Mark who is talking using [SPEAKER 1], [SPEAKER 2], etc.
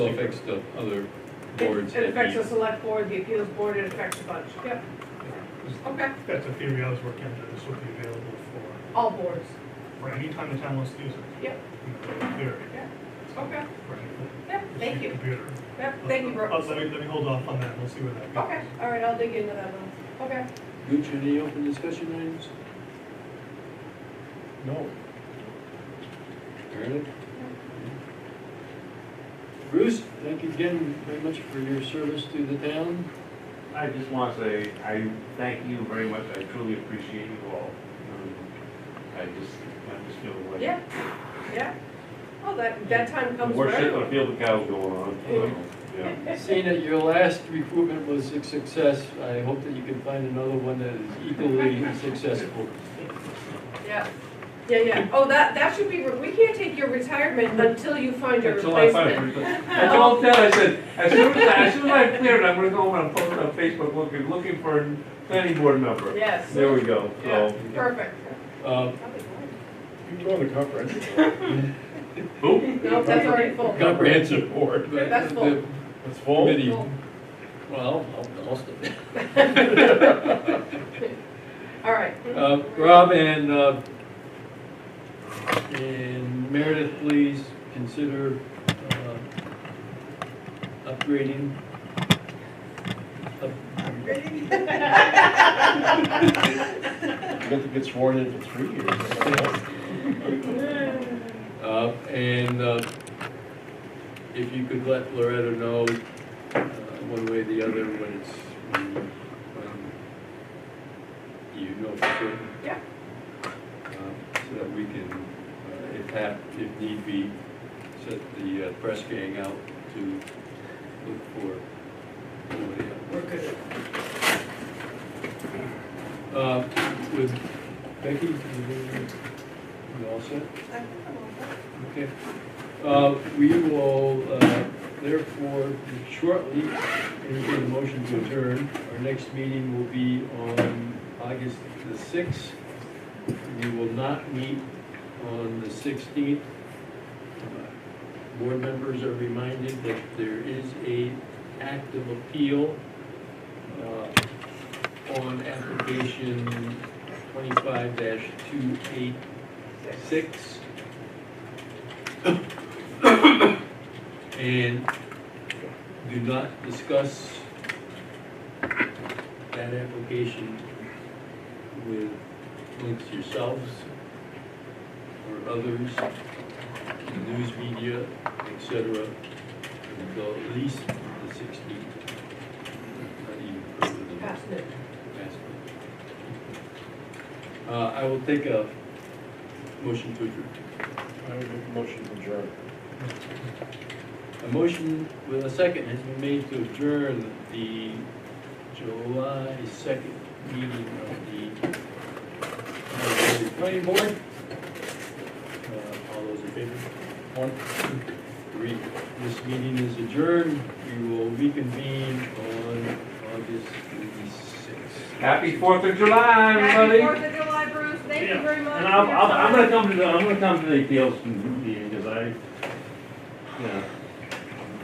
[SPEAKER 1] It affects the other boards.
[SPEAKER 2] It
[SPEAKER 1] that
[SPEAKER 2] affects
[SPEAKER 1] we-
[SPEAKER 2] the select board, the appeals board, it affects a bunch, yep. Okay,
[SPEAKER 3] That's a theory I was working on, that this would be available for,
[SPEAKER 2] all boards,
[SPEAKER 3] for any time the town wants to use it.
[SPEAKER 2] Yep.
[SPEAKER 3] You know, in Theory.
[SPEAKER 2] okay,
[SPEAKER 3] right?
[SPEAKER 2] yep, thank
[SPEAKER 3] It's your
[SPEAKER 2] you,
[SPEAKER 3] Computer.
[SPEAKER 2] yep, thank you,
[SPEAKER 3] Uh,
[SPEAKER 2] Brooks.
[SPEAKER 3] Let me, let me hold off on that, we'll see where that goes.
[SPEAKER 2] Okay, all right, I'll dig into that one, okay.
[SPEAKER 1] Gooch, any open discussion items?
[SPEAKER 4] No.
[SPEAKER 1] Meredith? Bruce, thank you again very much for your service to the town.
[SPEAKER 4] I just want to say, I thank you very much, I truly appreciate you all. Um, I just, I just feel like.
[SPEAKER 2] Yeah, yeah, well, that, that time comes for
[SPEAKER 4] Worship
[SPEAKER 2] everyone.
[SPEAKER 4] of field of cows going on.
[SPEAKER 1] Yeah.
[SPEAKER 4] Yeah.
[SPEAKER 1] Seeing that your last recruitment was a success, I hope that you can find another one that is equally successful.
[SPEAKER 2] Yeah, yeah, yeah, oh, that, that should be, re- we can't take your retirement until you find your
[SPEAKER 4] Until I find a
[SPEAKER 2] replacement.
[SPEAKER 4] replacement. I told Ted, I said, as soon as, I- as soon as I cleared, I'm gonna go and post it on Facebook looking, looking for a planning board member.
[SPEAKER 2] Yes,
[SPEAKER 4] There we go,
[SPEAKER 2] Yeah.
[SPEAKER 4] so.
[SPEAKER 2] perfect.
[SPEAKER 1] Uh,
[SPEAKER 5] You told the comprehensive.
[SPEAKER 4] Who?
[SPEAKER 2] No, that's already full.
[SPEAKER 1] Comprehensive board. but
[SPEAKER 2] That's
[SPEAKER 1] the
[SPEAKER 2] full.
[SPEAKER 5] It's full?
[SPEAKER 1] Committee,
[SPEAKER 2] Full.
[SPEAKER 1] well, most of it.
[SPEAKER 2] All right.
[SPEAKER 1] Uh, Rob and, uh, and Meredith, please consider, uh, upgrading. up-
[SPEAKER 5] You got to get sworn in for three years.
[SPEAKER 1] Uh, and, uh, if you could let Loretta know, uh, one way or the other, when it's, when, when you know for certain.
[SPEAKER 2] Yeah.
[SPEAKER 1] Uh, So that we can, uh, if hap, if need be, set the uh, press gang out to look for somebody else.
[SPEAKER 2] We're good.
[SPEAKER 1] Uh, with Becky, you all set? Okay. Uh, we will, uh, therefore, shortly, entertain a motion to adjourn. Our next meeting will be on August the sixth. We will not meet on the sixteenth. Board members are reminded that there is a active appeal, uh, on application twenty-five two eight six. And do not discuss that application with amongst yourselves or others, news media, et cetera, until at least the sixteenth. Not even further than that.
[SPEAKER 2] Pass it.
[SPEAKER 1] Yes. Uh, I will take a motion to adjourn.
[SPEAKER 5] I would make a motion to adjourn.
[SPEAKER 1] A motion with a second has been made to adjourn the July second meeting of the of the planning board. Uh, All those in favor? One, two, three. This meeting is adjourned. We will reconvene on August sixth.
[SPEAKER 4] Happy Fourth of July,
[SPEAKER 2] Happy
[SPEAKER 4] everybody.
[SPEAKER 2] Fourth of July, Bruce, thank you
[SPEAKER 4] Yeah.
[SPEAKER 2] very much.
[SPEAKER 4] And
[SPEAKER 2] for
[SPEAKER 4] I'm,
[SPEAKER 2] your
[SPEAKER 4] I'm,
[SPEAKER 2] time.
[SPEAKER 4] I'm gonna come to the, I'm gonna come to the appeals meeting, because I, you know,